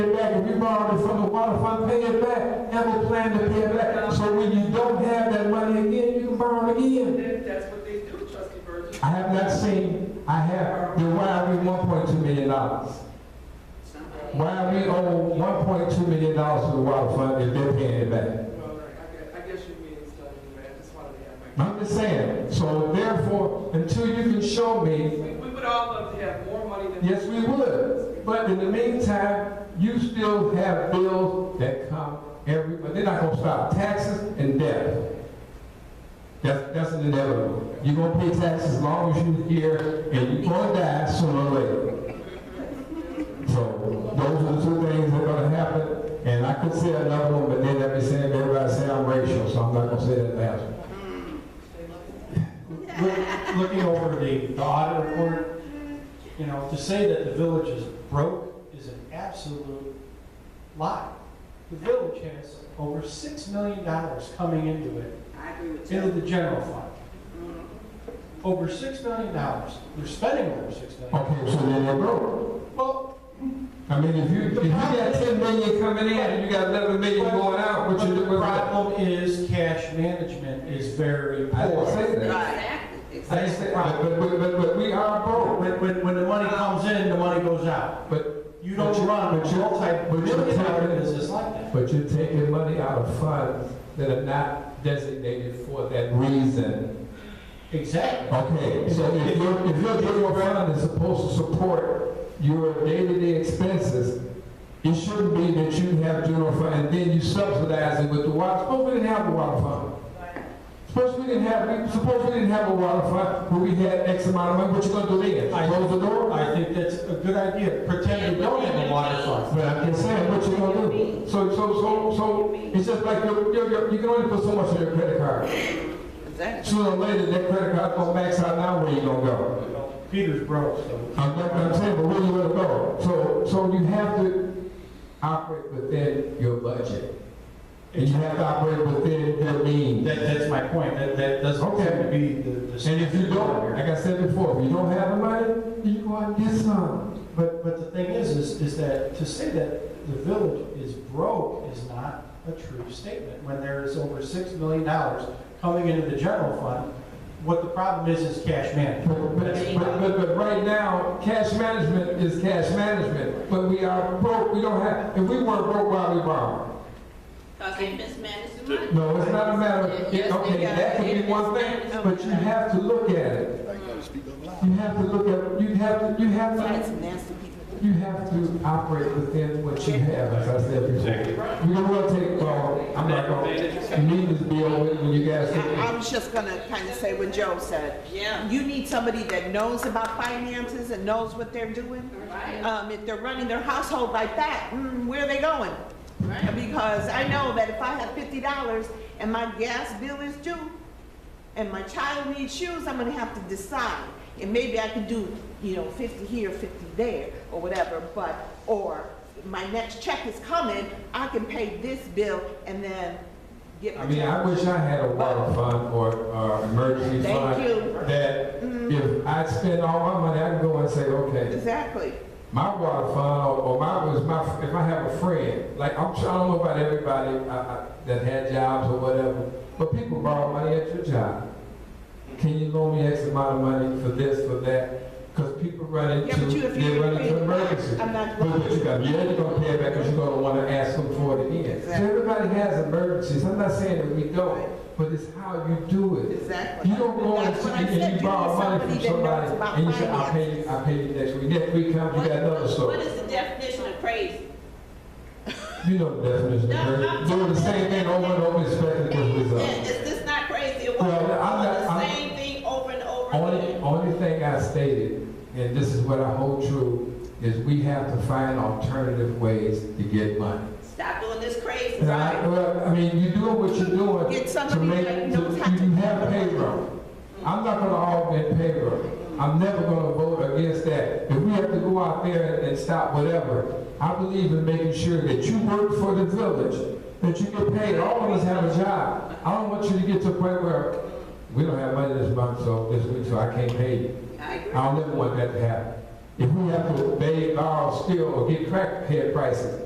it back, if you borrowed it from the water fund, pay it back, have a plan to pay it back. So when you don't have that money again, you can borrow it again. That- That's what they do, trustee Burgess. I have not seen, I have, then why are we E one point two million dollars? Why are we owe one point two million dollars to the water fund if they're paying it back? Well, I guess, I guess you mean it's done anyway, I just wanted to have my. I'm just saying, so therefore, until you can show me, We, we would all love to have more money than. yes, we would. But in the meantime, you still have bills that come every, but they're not gonna stop, taxes and debt. That's, that's an inevitable. You're gonna pay taxes as long as you're here, and you're gonna die sooner or later. So those are the two things that are gonna happen, and I could say another one, but then that'd be saying, everybody say I'm racial, so I'm not gonna say that last one. Look- Looking over the, the audit report, you know, to say that the village is broke is an absolute lie. The village has over six million dollars coming into it, I agree with into you. Mm-hmm. the general fund. Over six million dollars, we're spending over six million. Okay, so then they're broke. Well, I mean, if you, if you got ten million coming in and you got eleven million going out, what but you the doing? I problem is cash management is very didn't poor. say that. Exactly, I exactly. didn't say, but, but- but, but, but we are broke, When, when, when the money comes in, the money goes out. but, You don't run a But you're- but you're multi-million dollar taking- business like that. but you're taking money out of funds that are not designated for that reason. Exactly. Okay, so if your, if your general fund is supposed to support your day-to-day expenses, it shouldn't be that you have general fund and then you subsidize it with the water, suppose we didn't have the water fund. Suppose we didn't have, we- suppose we didn't have a water fund, but we had X amount of money, what you gonna do then? I- Close the door? I think that's a good idea, pretend we don't have a water fund. But I'm just saying, what you gonna do? So, so, so, so, it's just like, your your your you can only put so much in your credit card. Exactly. Sooner or later, that credit card gonna max out now, where you gonna go? Peter's broke, so. I'm not, I'm saying, but where you gonna go? So, so you have to operate within your budget. And you have to operate within your means. That, that's my point, that, that doesn't seem to be the, the. And if you don't, like I said before, if you don't have the money, you go out and get some. But, but the thing is, is, is that to say that the village is broke is not a true statement, when there is over six million dollars coming into the general fund, what the problem is, is cash But, management. but, but, but- but right now, cash management is cash management, but we are broke, we don't have, if we weren't broke, why we borrow? Cause they mismanaged the money. No, it's not a matter, of Yes, they okay, got that could it. be one thing, but you have to look at it. I gotta speak up loud. You have to look at, you have to, you have That's to, nasty people. you have to operate within what you have, as I said before. We don't want to take, uh, I'm not gonna, need this bill when you guys. I I was just gonna kind of say what Joe said. Yeah. You need somebody that knows about finances and knows what they're doing. Right. Um, if they're running their household like that, mm, where are they going? Right. Because I know that if I have fifty dollars and my gas bill is due, and my child needs shoes, I'm gonna have to decide. And maybe I can do, you know, fifty here, fifty there, or whatever, but, or my next check is coming, I can pay this bill and then get my. I mean, I wish I had a water fund or, or emergency Thank fund. you. That Mm-hmm, if I spend all my money, I can go and say, okay, Exactly. my water fund or- or my, was my, if I have a friend, like, I'm sure, I don't know about everybody, uh, uh, that had jobs or whatever, but people borrow money at your job. Can you loan me X amount of money for this, for that? Cause people run Yeah, but into, you- if you- they run into emergencies. I'm not- But what you got, yeah, you're gonna pay it back because you're gonna wanna ask them for it again. So Exactly. everybody has emergencies, I'm not saying that we don't, Right. but it's how you do it. Exactly. You don't go and That's what I see- and said. you need borrow money from somebody that knows somebody about and you say, I'll finance. pay you, I'll pay you next week. Next week comes, you got another What story. is the definition of crazy? You know the definition of No, emergency, I'm- doing the same thing over and over expecting different Is results. is this not crazy? It was Well, I'm not- the I'm- same thing over and over Only, again. only thing I stated, and this is what I hold true, is we have to find alternative ways to get money. Stop doing this crazy. And I, well, I mean, you doing what you're doing. Get to somebody make, that to- knows how to- you have payroll. I'm not gonna augment payroll. I'm never gonna vote against that. If we have to go out there and stop whatever, I believe in making sure that you work for the village, that you get paid. All of us have a job. I don't want you to get to a point where, we don't have money this month, so this week, so I can't pay you. I agree. I don't ever want that to happen. If we have to beg, borrow, steal, or get crackhead prices,